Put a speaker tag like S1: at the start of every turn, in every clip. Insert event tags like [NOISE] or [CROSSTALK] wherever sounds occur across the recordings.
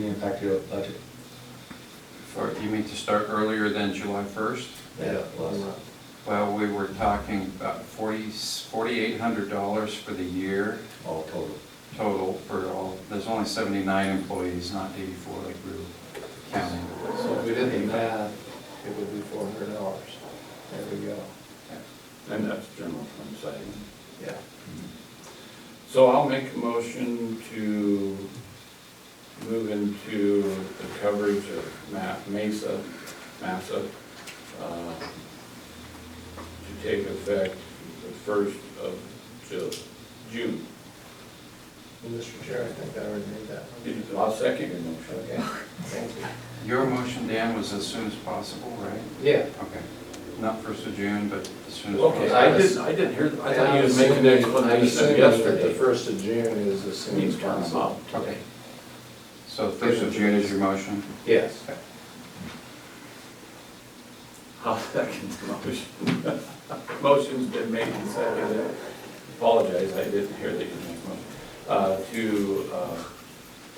S1: impact your budget.
S2: For, you mean to start earlier than July 1st?
S1: Yeah.
S2: Well, we were talking about 40 $4,800 for the year
S1: All total.
S2: total for all, there's only 79 employees, not 84 like we were counting.
S3: So if we did the math, it would be four hundred dollars. There we go.
S4: And that's general fund savings.
S3: Yeah.
S4: So I'll make a motion to move into the coverage of Ma- Mesa, Massa, uh, to take effect the first of Ju- June.
S3: Mr. Chair, I think I already made that one.
S4: I'll second your motion.
S3: Okay, thank you.
S2: Your motion, Dan, was as soon as possible, right?
S3: Yeah.
S2: Okay. Not 1st of June, but as soon as
S4: Okay,
S2: possible.
S4: I didn't, I didn't hear, I thought you was making an explanation of
S3: The
S4: yesterday.
S3: first of June is as soon as
S4: Means turn them
S3: possible.
S4: up.
S3: Okay.
S2: So 1st of June is your motion?
S3: Yes.
S4: I'll second the motion. [LAUGHS] Motion's been made and seconded. Apologize, I didn't hear that you made a motion. Uh, To uh,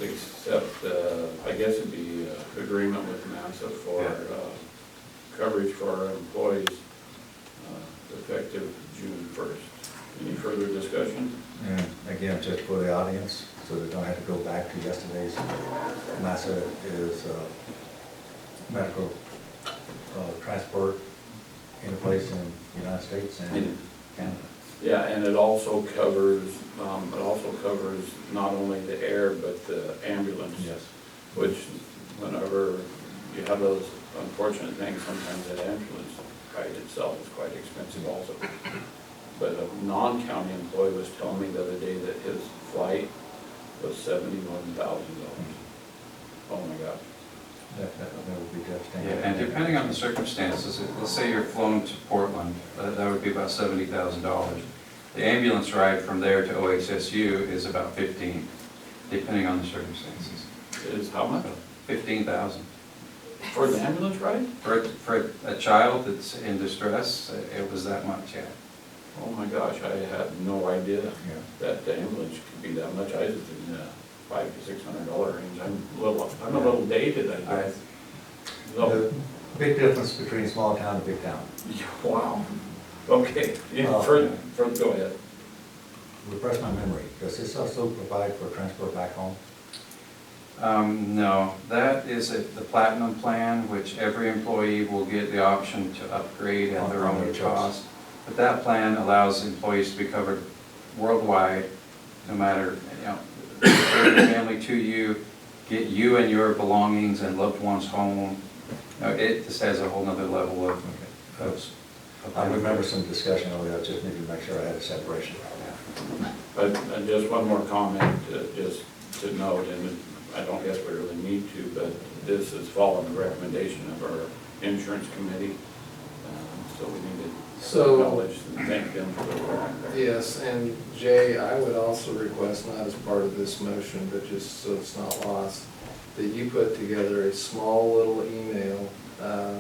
S4: accept, the- I guess it'd be uh, agreement with MASSA for
S2: Yeah.
S4: uh, coverage for our employees uh, effective June 1st. Any further discussion?
S1: And again, just for the audience, so they don't have to go back to yesterday's, NASA is uh, medical uh, transport in place in the United States and Canada.
S4: Yeah, and it also covers, um, it also covers not only the air, but the ambulance. which whenever you have those unfortunate things, sometimes that ambulance ride itself is quite expensive also. But a non-county employee was telling me the other day that his flight was seventy-one thousand dollars. Oh my gosh.
S1: That, that that would be
S2: Yeah,
S1: devastating.
S2: and depending on the circumstances, if- let's say you're flown to Portland, uh, that that would be about seventy thousand dollars. The ambulance ride from there to OHSU is about fifteen, depending on the circumstances.
S4: It is how much?
S2: Fifteen thousand.
S4: For the ambulance ride?
S2: For, a- for a child that's in distress, it was that much, yeah.
S4: Oh my gosh, I had no idea
S1: Yeah.
S4: that the ambulance could be that much. I was in the five to six hundred dollar range. I'm a little, I'm a little dated, I
S2: I-
S4: guess.
S1: The big difference between small town and big town.
S4: Yeah, Wow, okay, yeah,
S3: Uh,
S1: Oh,
S4: for,
S2: yeah.
S4: for, go ahead.
S1: Refresh my memory, does this also provide for transport back home?
S2: Um, no, that is a- the platinum plan, which every employee will get the option to upgrade at their
S1: On their
S2: own
S1: choice.
S2: cost. But that plan allows employees to be covered worldwide, no matter, you know, bring your family to you, get you and your belongings and loved ones home. You know, It just has a whole nother level of, of. of-
S1: I remember some discussion over that, just need to make sure I had a separation.
S4: But, and just one more comment, uh, just to note, and I don't guess we really need to, but this is following the recommendation of our insurance committee. uh, So we need to
S3: So-
S4: acknowledge and thank them for their work.
S3: Yes, and Jay, I would also request, not as part of this motion, but just so it's not lost, that you put together a small little email uh,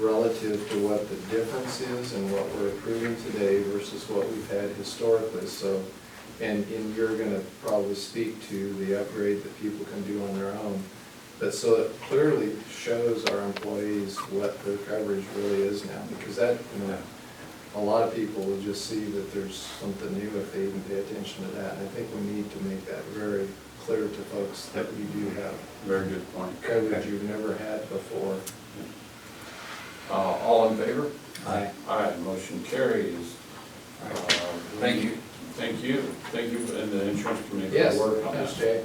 S3: relative to what the difference is and what we're approving today versus what we've had historically, so, and, and you're gonna probably speak to the upgrade that people can do on their own, but so it clearly shows our employees what their coverage really is now, because that, you know, a lot of people will just see that there's something new if they even pay attention to that. And I think we need to make that very clear to folks that we do have
S4: Very good point.
S3: coverage you've never had before.
S4: Uh, all in favor?
S1: Aye.
S4: Aye, motion carries. Uh,
S2: Thank you.
S4: Thank you, thank you, and the insurance committee for
S3: Yes,
S4: their work on this.
S3: Ms. Jay.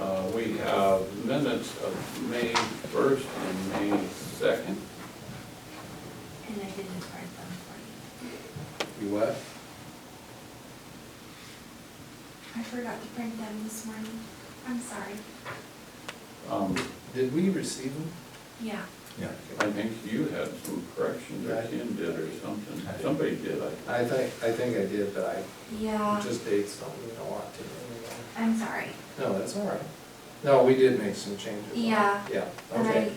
S4: Uh, We have minutes of May 1st and May 2nd.
S5: And I didn't write them for you.
S3: You what?
S5: I forgot to print them this morning. I'm sorry.
S4: Um,
S3: Did we receive them?
S5: Yeah.
S1: Yeah.
S4: I think you had some corrections, or
S3: Right.
S4: Ken did, or something. Somebody did, I think.
S3: I think, I think I did, but I
S5: Yeah,
S3: just dates don't mean a lot to me anymore.
S5: I'm sorry.
S3: No, that's all right. No, we did make some changes.
S5: Yeah.
S3: Yeah,
S5: And I,
S3: okay.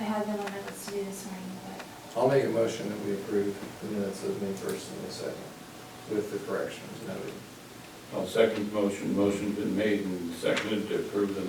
S5: I had them on my list to do this morning, but.
S3: I'll make a motion that we approve the minutes of May first and May second with the corrections noted.
S4: I'll second the motion. Motion's been made and seconded to approve the